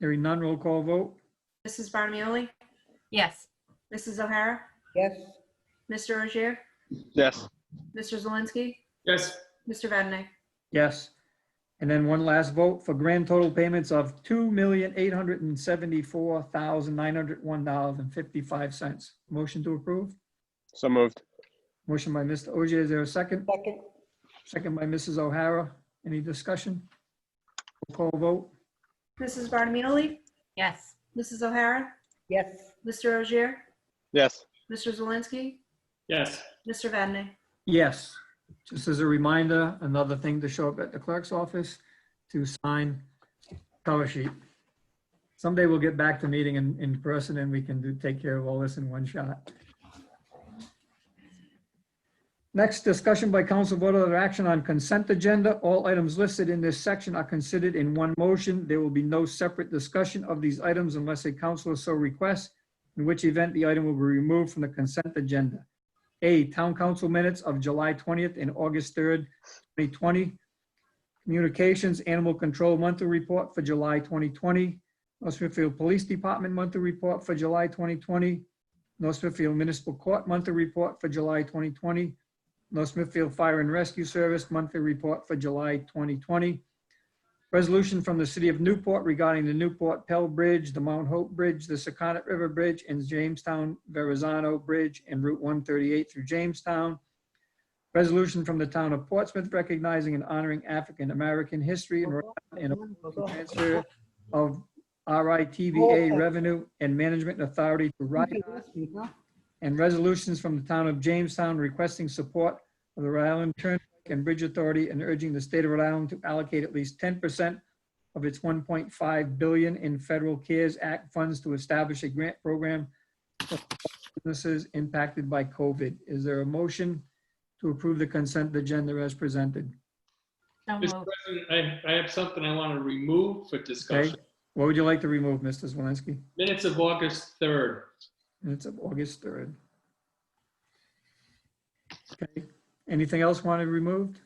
Hearing none, roll call vote. Mrs. Barnamoli? Yes. Mrs. O'Hara? yes, Mr. Rozier? Yes. Mr. Zelinski? Yes. Mr. Vadeney? Yes. And then one last vote for grand total payments of $2,874,901.55. Motion to approve. So moved. Motion by Mr. Ogier, is there a second? second, Second by Mrs. O'Hara. Any discussion? Roll call vote. Mrs. Barnamoli? Yes. Mrs. O'Hara? yes, Mr. Rozier? Yes. Mr. Zelinski? Yes. Mr. Vadeney? Yes. Just as a reminder, another thing to show up at the clerk's office to sign cover sheet. Someday we'll get back to meeting in, in person and we can do, take care of all this in one shot. Next, discussion by council vote or action on consent agenda. All items listed in this section are considered in one motion. There will be no separate discussion of these items unless a councilor so requests, in which event the item will be removed from the consent agenda. A, Town Council Minutes of July 20th and August 3rd, 2020. Communications Animal Control Monthly Report for July 2020. North Smithfield Police Department Monthly Report for July 2020. North Smithfield Municipal Court Monthly Report for July 2020. North Smithfield Fire and Rescue Service Monthly Report for July 2020. Resolution from the City of Newport regarding the Newport Pell Bridge, the Mount Hope Bridge, the Secundit River Bridge, and Jamestown Verrazano Bridge and Route 138 through Jamestown. Resolution from the Town of Portsmouth recognizing and honoring African-American history and and transfer of RITVA Revenue and Management Authority to RIDA and resolutions from the town of Jamestown requesting support of the Rhode Island Turnpike and Bridge Authority and urging the state of Rhode Island to allocate at least ten percent of its one point five billion in federal CARES Act funds to establish a grant program for businesses impacted by COVID. Is there a motion to approve the consent agenda as presented? So Mr. moved. President, I, I have something I want to remove for discussion. What would you like to remove, Mr. Zelinski? Minutes of August 3rd. Minutes of August third. Okay, anything else wanted removed?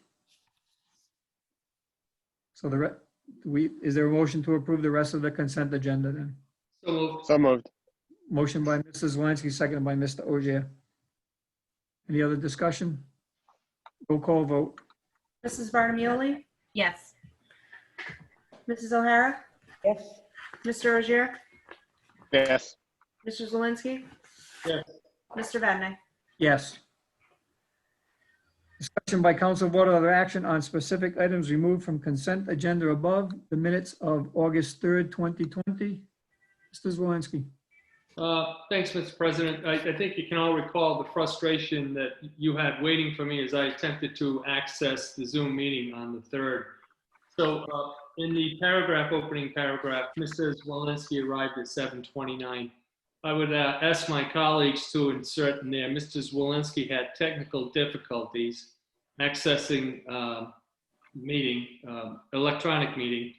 So the, re- we, is there a motion to approve the rest of the consent agenda then? So moved. So moved. Motion by Mrs. Zelinski, seconded by Mr. Ogier. Any other discussion? Roll call vote. Mrs. Barnamoli? Yes. Mrs. O'Hara? yes, Mr. Rozier? Yes. Mr. Zelinski? Yes. Mr. Vadeney? Yes. Discussion by council vote or other action on specific items removed from consent agenda above, the minutes of August 3rd, 2020. Mr. Zelinski. Uh, Thanks, Mr. President. I, I think you can all recall the frustration that you had waiting for me as I attempted to access the Zoom meeting on the 3rd. So uh, in the paragraph, opening paragraph, Mrs. Walensky arrived at 7:29. I would uh, ask my colleagues to insert in there, Mrs. Walensky had technical difficulties accessing um, meeting, um, electronic meeting,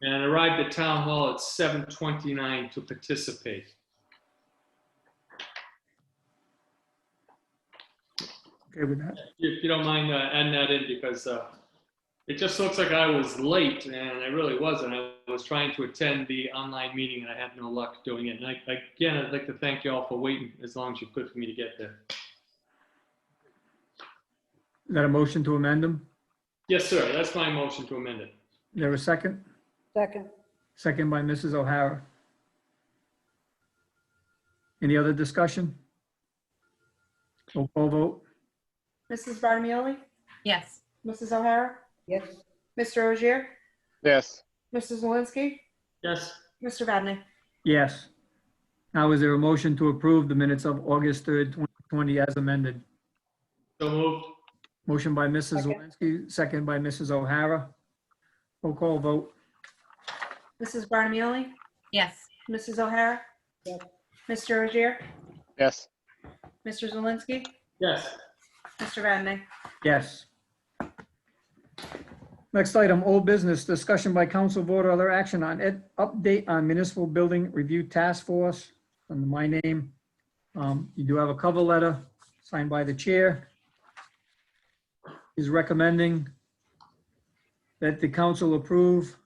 and arrived at Town Hall at 7:29 to participate. Okay with that? If you don't mind uh, adding that in, because uh, it just looks like I was late, and I really wasn't. I was trying to attend the online meeting, and I had no luck doing it. And I, again, I'd like to thank you all for waiting as long as you could for me to get there. Is that a motion to amend them? Yes, sir, that's my motion to amend it. Is there a second? second, Second by Mrs. O'Hara. Any other discussion? Roll call vote. Mrs. Barnamoli? Yes. Mrs. O'Hara? yes, Mr. Rozier? Yes. Mr. Zelinski? Yes, Mr. Vadeney? Yes. Now is there a motion to approve the minutes of August 3rd, 2020 as amended? so moved. Motion by Mrs. Second. Zelinski, second by Mrs. O'Hara. Roll call vote. Mrs. Barnamoli? Yes. Mrs. O'Hara? Yes. Mr. Rozier? Yes. Mr. Zelinski? Yes, Mr. Vadeney? Yes. Next item, old business, discussion by council vote or other action on ed, update on municipal building review task force under my name. Um, You do have a cover letter signed by the chair. Is recommending that the council approve